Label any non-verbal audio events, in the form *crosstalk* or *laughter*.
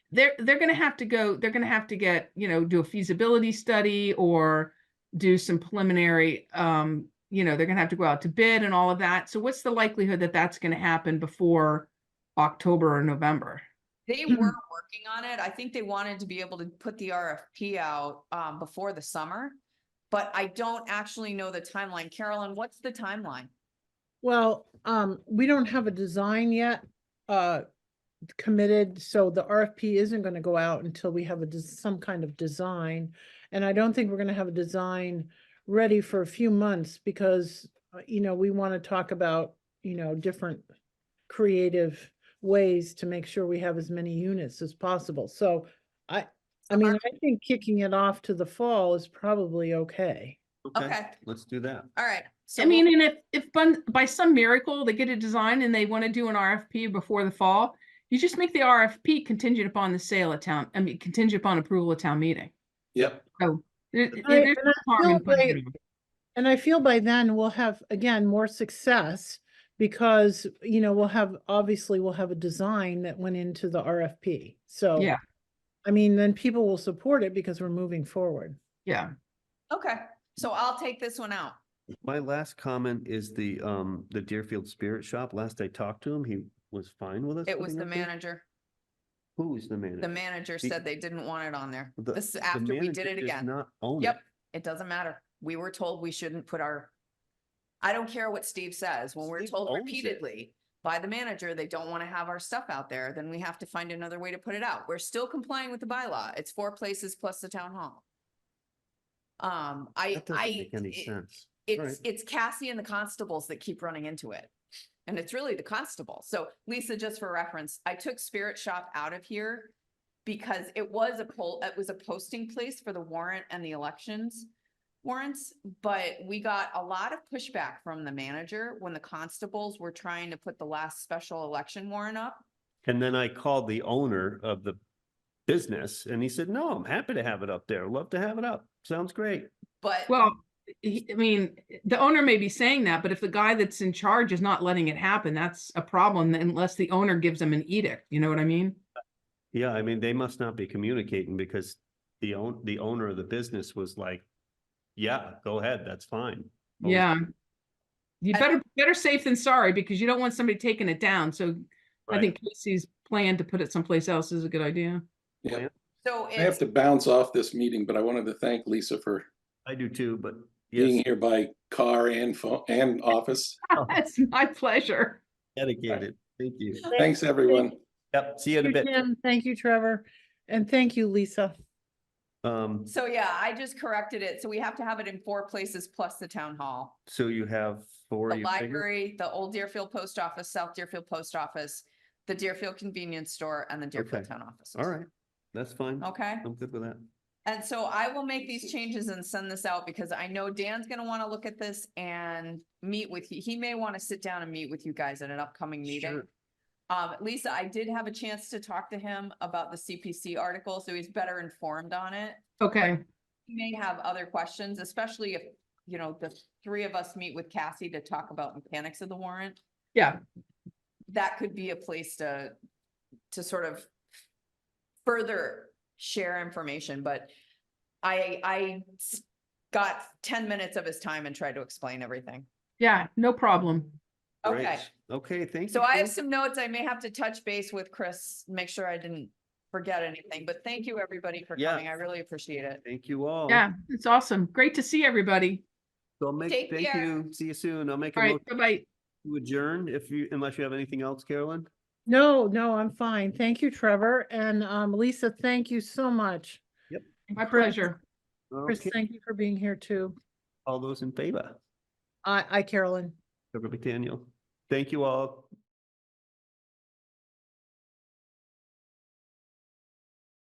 they're, they're gonna have to go, they're gonna have to get, you know, do a feasibility study or do some preliminary, um, you know, they're gonna have to go out to bid and all of that. So what's the likelihood that that's gonna happen before October or November? They were working on it. I think they wanted to be able to put the RFP out um before the summer. But I don't actually know the timeline. Carolyn, what's the timeline? Well, um, we don't have a design yet, uh, committed, so the RFP isn't gonna go out until we have a, des- some kind of design. And I don't think we're gonna have a design ready for a few months because, uh, you know, we wanna talk about, you know, different creative ways to make sure we have as many units as possible. So I, I mean, I think kicking it off to the fall is probably okay. Okay. Let's do that. All right. so I we'll- mean, and if, if bun- by some miracle, they get a design and they want to do an RFP before the fall, you just make the RFP contingent upon the sale at town, I mean, contingent upon approval at town meeting. Yep. There- there- Right, there's and no I harm feel in putting like- it on. And I feel by then we'll have, again, more success because, you know, we'll have, obviously we'll have a design that went into the RFP. So. Yeah. I mean, then people will support it because we're moving forward. Yeah, Okay, so I'll take this one out. My last comment is the, um, the Deerfield Spirit Shop. Last I talked to him, he was fine with us. It was putting the up there? manager. Who is the manager? The manager The- said they didn't want it on there. The- This is the after we manager did it does again. Not own it. Yep, it doesn't matter. We were told we shouldn't put our, I don't care what Steve says, when we're Steve told owns it. repeatedly by the manager, they don't want to have our stuff out there, then we have to find another way to put it out. We're still complying with the bylaw. It's four places plus the town hall. Um, I, That doesn't I, make any it- sense. it's, Right. it's Cassie and the constables that keep running into it. And it's really the constable. So Lisa, just for reference, I took Spirit Shop out of here because it was a poll, it was a posting place for the warrant and the elections warrants, but we got a lot of pushback from the manager when the constables were trying to put the last special election warrant up. And then I called the owner of the business and he said, no, I'm happy to have it up there. Love to have it up. Sounds great. But well, he- I mean, the owner may be saying that, but if the guy that's in charge is not letting it happen, that's a problem unless the owner gives them an edict, you know what I mean? Yeah, I mean, they must not be communicating because the own, the owner of the business was like, yeah, go ahead. That's fine. But we- Yeah. You I- better, better safe than sorry, because you don't want somebody taking it down, so I Right. think Casey's plan to put it someplace else is a good idea. Yeah, so I have it's, to bounce off this meeting, but I wanted to thank Lisa for I do too, but yes, being here by car and phone and office. *laughs* That's my pleasure. dedicated. Thank you. Thanks, everyone. Yep, see you in a Thank you, bit. Jim. Thank you, Trevor. And thank you, Lisa. Um, so yeah, I just corrected it. So we have to have it in four places plus the town hall. so you have four. the you figure? library, the old Deerfield Post Office, South Deerfield Post Office, the Deerfield Convenience Store and the Deerfield Okay. Town Office. All right, that's fine. Okay, I'm good with that. and so I will make these changes and send this out because I know Dan's gonna wanna look at this and meet with you. He may wanna sit down and meet with you guys at an upcoming meeting. Sure. Um, Lisa, I did have a chance to talk to him about the CPC article, so he's better informed on it. Okay, He may have other questions, especially if, you know, the three of us meet with Cassie to talk about mechanics of the warrant. yeah, that could be a place to, to sort of further share information, but I, I s- got ten minutes of his time and tried to explain everything. yeah, no problem. Great. Okay, Okay, thank you. so I have Chris. some notes. I may have to touch base with Chris, make sure I didn't forget anything, but thank you, everybody, for Yeah. coming. I really appreciate it. Thank you all. Yeah, it's awesome. Great to see everybody. So I'll make, Take thank care. you. See you soon. I'll make a All motion right, bye-bye. to adjourn if you, unless you have anything else, Carolyn. No, no, I'm fine. Thank you, Trevor. And, um, Lisa, thank you so much. My My Chris- pleasure. Chris, Okay, thank you for being here too. all those in favor, I, I, Carolyn. Trevor McDaniel. Thank you all.